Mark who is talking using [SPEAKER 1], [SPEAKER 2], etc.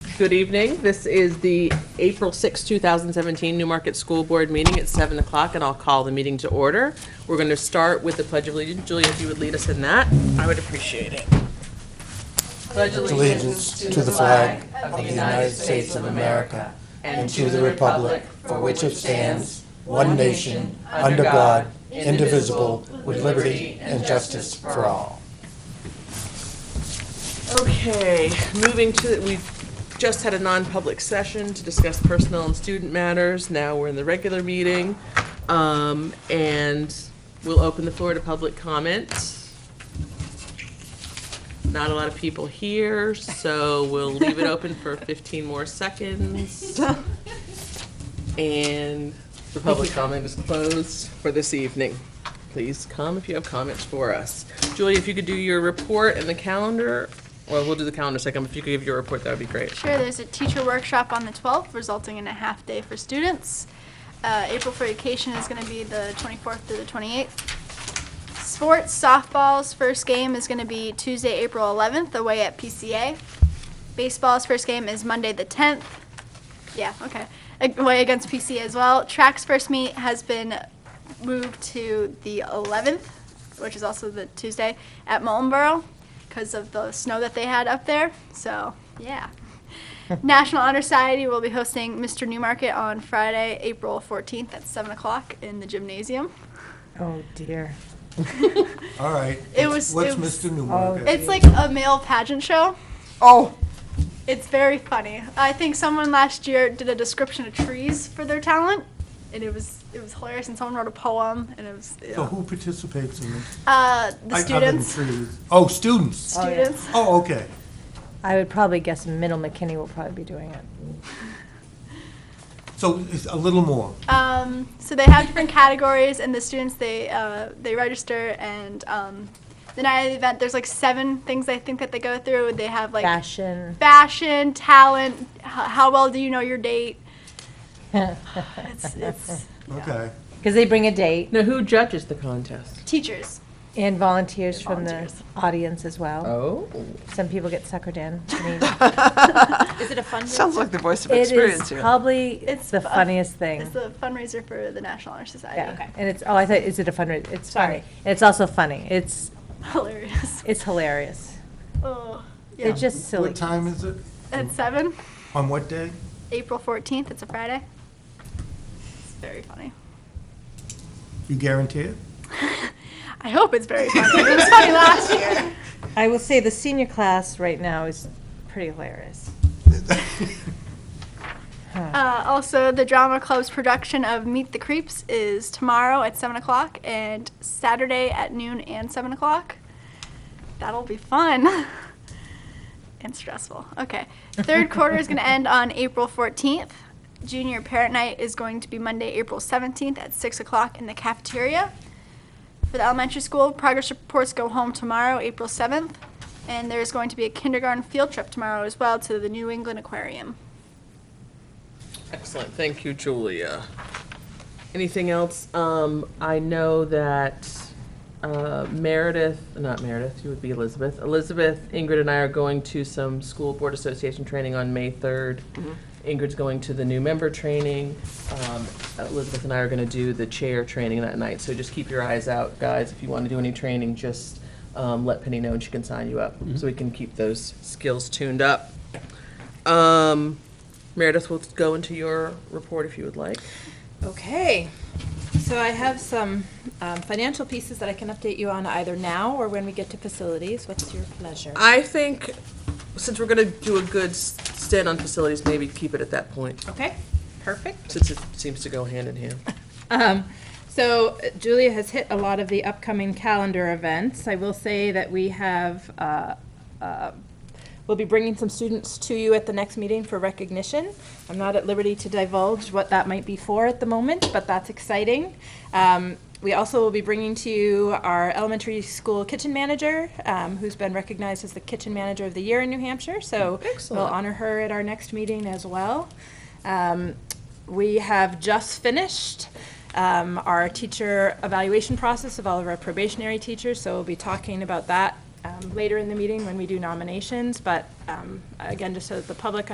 [SPEAKER 1] Good evening. This is the April 6, 2017 Newmarket School Board meeting at 7 o'clock, and I'll call the meeting to order. We're going to start with the Pledge of Allegiance. Julie, if you would lead us in that, I would appreciate it. Pledge
[SPEAKER 2] allegiance to the flag of the United States of America and to the republic for which it stands, one nation, under God, indivisible, with liberty and justice for all.
[SPEAKER 1] Okay, moving to, we've just had a non-public session to discuss personnel and student matters. Now we're in the regular meeting. Um, and we'll open the floor to public comment. Not a lot of people here, so we'll leave it open for fifteen more seconds. And the public comment is closed for this evening. Please come if you have comments for us. Julie, if you could do your report and the calendar, well, we'll do the calendar second, but if you could give your report, that would be great.
[SPEAKER 3] Sure, there's a teacher workshop on the 12th, resulting in a half day for students. Uh, April for vacation is going to be the 24th through the 28th. Sports softball's first game is going to be Tuesday, April 11th, away at PCA. Baseball's first game is Monday, the 10th. Yeah, okay. Away against PCA as well. Track's first meet has been moved to the 11th, which is also the Tuesday, at Moultonboro because of the snow that they had up there. So, yeah. National Honor Society will be hosting Mr. Newmarket on Friday, April 14th at 7 o'clock in the gymnasium.
[SPEAKER 4] Oh dear.
[SPEAKER 2] All right.
[SPEAKER 3] It was-
[SPEAKER 2] What's
[SPEAKER 3] it was-
[SPEAKER 2] Mr. Newmarket?
[SPEAKER 3] It's like a male pageant show.
[SPEAKER 4] Oh.
[SPEAKER 3] It's very funny. I think someone last year did a description of trees for their talent, and it was it was hilarious. And someone wrote a poem, and it was
[SPEAKER 2] So who participates in this?
[SPEAKER 3] uh, the
[SPEAKER 2] I- other than
[SPEAKER 3] students. Uh,
[SPEAKER 2] trees. Oh, students.
[SPEAKER 4] Oh, yeah.
[SPEAKER 3] Students.
[SPEAKER 2] Oh, okay.
[SPEAKER 4] I would probably guess Middle McKinney will probably be doing it.
[SPEAKER 2] So it's a little more.
[SPEAKER 3] Um, so they have different categories, and the students they uh, they register. And um, the night of the event, there's like seven things I think that they go through. They have like
[SPEAKER 4] Fashion.
[SPEAKER 3] fashion, talent, h- how well do you know your date? It's, it's
[SPEAKER 2] Okay.
[SPEAKER 4] Because they bring a date
[SPEAKER 1] Now, who judges the contest?
[SPEAKER 3] teachers.
[SPEAKER 4] and volunteers from the
[SPEAKER 3] Volunteers.
[SPEAKER 4] audience as well.
[SPEAKER 1] Oh.
[SPEAKER 4] Some people get suckered in. I mean,
[SPEAKER 5] Is it a fund?
[SPEAKER 6] Sounds like the voice of
[SPEAKER 4] It
[SPEAKER 6] experience
[SPEAKER 4] is
[SPEAKER 6] here.
[SPEAKER 4] probably
[SPEAKER 3] It's
[SPEAKER 4] the
[SPEAKER 3] fu-
[SPEAKER 4] funniest thing.
[SPEAKER 3] It's the fundraiser for the National Honor Society.
[SPEAKER 4] Yeah. And it's, oh, I thought, is it a fundraiser? It's funny.
[SPEAKER 5] Sorry.
[SPEAKER 4] It's also funny. It's,
[SPEAKER 3] Hilarious.
[SPEAKER 4] it's hilarious.
[SPEAKER 3] Oh, yeah.
[SPEAKER 4] They're just silly.
[SPEAKER 2] What time is it?
[SPEAKER 3] At 7,
[SPEAKER 2] On what day?
[SPEAKER 3] April 14th, it's a Friday. It's very funny.
[SPEAKER 2] You guarantee it?
[SPEAKER 3] I hope it's very funny. it was funny last year.
[SPEAKER 4] I will say the senior class right now is pretty hilarious.
[SPEAKER 3] Uh, also, the Drama Club's production of Meet the Creeps is tomorrow at 7 o'clock and Saturday at noon and 7 o'clock. That'll be fun and stressful. Okay. Third quarter is going to end on April 14th. Junior Parent Night is going to be Monday, April 17th at 6 o'clock in the cafeteria. For the elementary school, progress reports go home tomorrow, April 7th. And there's going to be a kindergarten field trip tomorrow as well to the New England Aquarium.
[SPEAKER 1] Excellent, thank you, Julia. Anything else? Um, I know that, uh, Meredith, not Meredith, you would be Elizabeth. Elizabeth, Ingrid and I are going to some school board association training on May third. Ingrid's going to the new member training. Um, Elizabeth and I are gonna do the chair training that night, so just keep your eyes out, guys. If you wanna do any training, just, um, let Penny know and she can sign you up, so we can keep those skills tuned up. Um, Meredith will go into your report if you would like.
[SPEAKER 5] Okay, so I have some um, financial pieces that I can update you on either now or when we get to facilities. What's your pleasure?
[SPEAKER 1] I think, since we're gonna do a good s- stand on facilities, maybe keep it at that point,
[SPEAKER 5] Okay, perfect.
[SPEAKER 1] since it seems to go hand in hand.
[SPEAKER 5] Um, so uh, Julia has hit a lot of the upcoming calendar events. I will say that we have, uh, uh, we'll be bringing some students to you at the next meeting for recognition. I'm not at liberty to divulge what that might be for at the moment, but that's exciting. Um, we also will be bringing to you our elementary school kitchen manager, um, who's been recognized as the kitchen manager of the year in New Hampshire. So we'll
[SPEAKER 1] Excellent.
[SPEAKER 5] honor her at our next meeting as well. Um, we have just finished um, our teacher evaluation process of all of our probationary teachers, so we'll be talking about that um, later in the meeting when we do nominations. But um, again, just so that the public